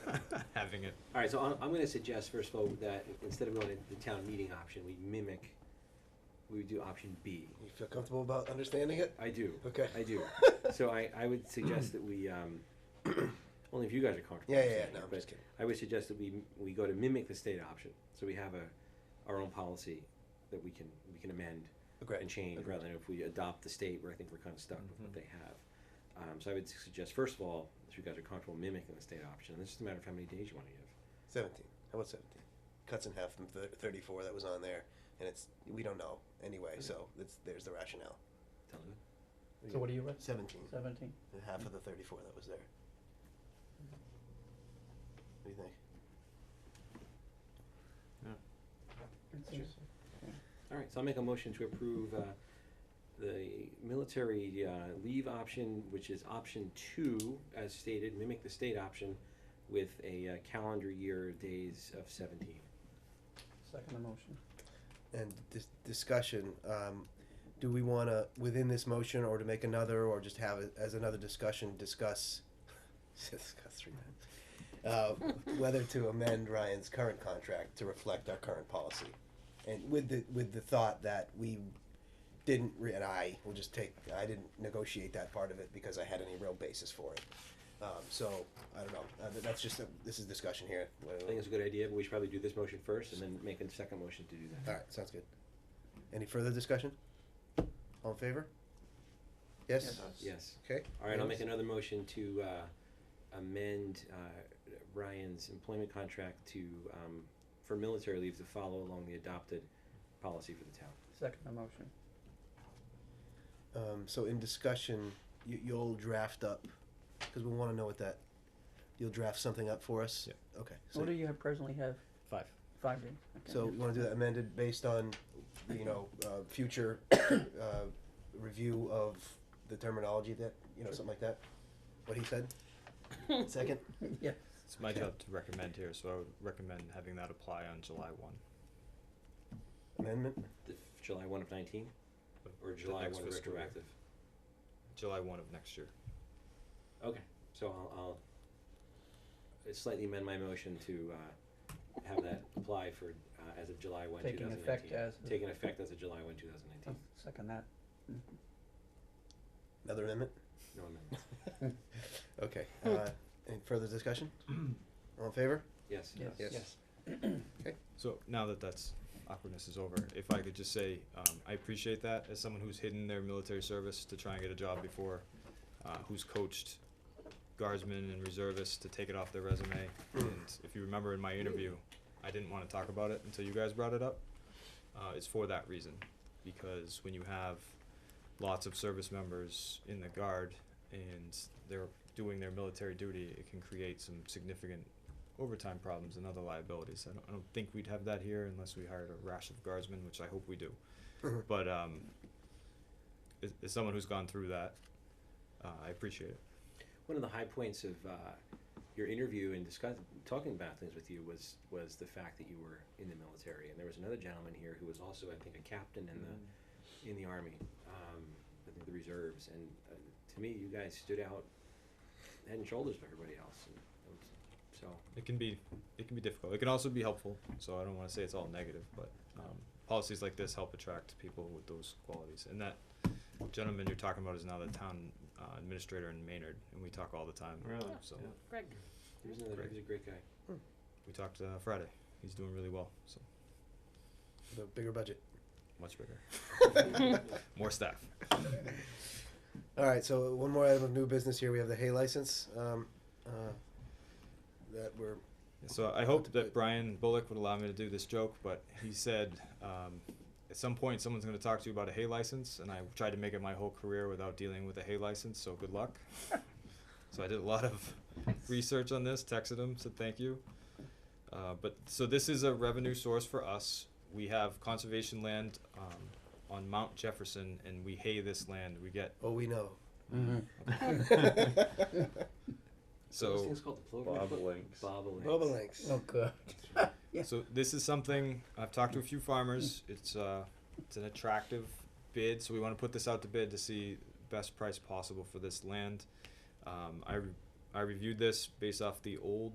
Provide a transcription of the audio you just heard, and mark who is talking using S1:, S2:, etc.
S1: having it.
S2: All right, so I'm, I'm gonna suggest first of all that instead of going to the town meeting option, we mimic, we would do option B.
S3: You feel comfortable about understanding it?
S2: I do.
S3: Okay.
S2: I do. So I, I would suggest that we, um, only if you guys are comfortable.
S3: Yeah, yeah, yeah,
S2: saying
S3: no,
S2: it,
S3: I'm
S2: but
S3: just kidding.
S2: I would suggest that we, we go to mimic the state option. So we have a, our own policy that we can, we can amend
S3: Agreed.
S2: and change
S3: Agreed. Mm-hmm.
S2: rather than if we adopt the state where I think we're kind of stuck with what they have. Um, so I would suggest, first of all, if you guys are comfortable mimicking the state option, and it's just a matter of how many days you want to give.
S3: 17. How about 17? Cuts in half from thir- 34 that was on there, and it's we don't know anyway, so it's there's the rationale.
S2: Sound good?
S4: So what do you recommend?
S3: 17.
S4: Seventeen.
S3: and half of the 34 that was there. What do you think?
S2: All right, so I'll make a motion to approve uh, the military uh, leave option, which is option two, as stated, mimic the state option with a uh, calendar year days of 17.
S4: Second motion.
S3: And this discussion, um, do we want to, within this motion, or to make another, or just have it as another discussion, discuss, discuss three times, uh, whether to amend Ryan's current contract to reflect our current policy? And with the, with the thought that we didn't, re- and I will just take, I didn't negotiate that part of it because I had any real basis for it. Um, so, I don't know, uh, th- that's just, a- this is discussion here.
S2: I think it's a good idea, but we should probably do this motion first and then make a second motion to do that.
S3: All right, sounds good. Any further discussion? All in favor? Yes?
S2: Yes.
S3: Okay.
S2: All right, I'll make another motion to uh, amend uh, Ryan's employment contract to, um, for military leave to follow along the adopted policy for the town.
S4: Second motion.
S3: Um, so in discussion, you, you'll draft up, because we wanna know what that, you'll draft something up for us?
S1: Yeah.
S3: Okay,
S4: What do
S3: so,
S4: you have presently have?
S1: Five.
S4: Five days. Okay.
S3: so you wanna do that amended based on, you know, uh, future, uh, review of the terminology that, you know, something like that? What he said? Second?
S4: Yeah,
S1: It's my
S3: Okay.
S1: job to recommend here, so I would recommend having that apply on July one.
S3: Amendment?
S2: The July 1 of 19
S1: but
S2: or
S1: the
S2: July
S1: next
S2: 1
S1: fiscal year.
S2: retroactive?
S1: July one of next year.
S2: Okay, so I'll, I'll slightly amend my motion to, uh, have that apply for, uh, as of July one, two
S4: Taking
S2: thousand nineteen.
S4: effect as of-
S2: Taking effect as of July one, two thousand
S4: I'll
S2: nineteen,
S4: second that.
S3: Another amendment?
S2: no amendments,
S3: Okay, uh, any further discussion? All in favor?
S2: yes.
S4: Yes.
S3: Yes.
S1: So now that that's awkwardness is over, if I could just say, um, I appreciate that as someone who's hidden their military service to try and get a job before, uh, who's coached guardsmen and reservists to take it off their resume. And if you remember in my interview, I didn't want to talk about it until you guys brought it up. Uh, it's for that reason, because when you have lots of service members in the guard and they're doing their military duty, it can create some significant overtime problems and other liabilities. I don't, I don't think we'd have that here unless we hired a rash of guardsmen, which I hope we do. but um, as, as someone who's gone through that, uh, I appreciate it.
S2: One of the high points of, uh, your interview and discuss, talking about things with you was, was the fact that you were in the military, and there was another gentleman here who was also, I think, a captain in the, in the army, um, I think the reserves, and uh, to me, you guys stood out head and shoulders to everybody else. And it was, so
S1: It can be it can be difficult. It can also be helpful. So I don't want to say it's all negative, but um, policies like this help attract people with those qualities. And that gentleman you're talking about is now the town uh, administrator in Maynard, and we talk all the time.
S5: Really?
S1: So
S5: Yeah. Greg.
S2: he was, another, he was a great guy.
S1: we talked uh, Friday. He's doing really well. So
S3: The bigger budget.
S1: much bigger, more staff.
S3: All right, so one more item of new business here. We have the hay license um, uh, that we're
S1: So I hoped that Brian Bullock would allow me to do this joke, but he said, um, at some point, someone's gonna talk to you about a hay license, and I tried to make it my whole career without dealing with a hay license, so good luck. So I did a lot of research on this, texted him, said thank you. Uh, but, so this is a revenue source for us. We have conservation land, um, on Mount Jefferson, and we hay this land, we get,
S3: oh we know. Mm-hmm.
S1: so.
S2: this thing's called the plover.
S5: Bobolinks.
S2: Bobolinks.
S3: Bobolinks.
S4: Oh, good. Yeah.
S1: So this is something I've talked to a few farmers. It's uh, it's an attractive bid, so we want to put this out to bid to see best price possible for this land. Um, I re- I reviewed this based off the old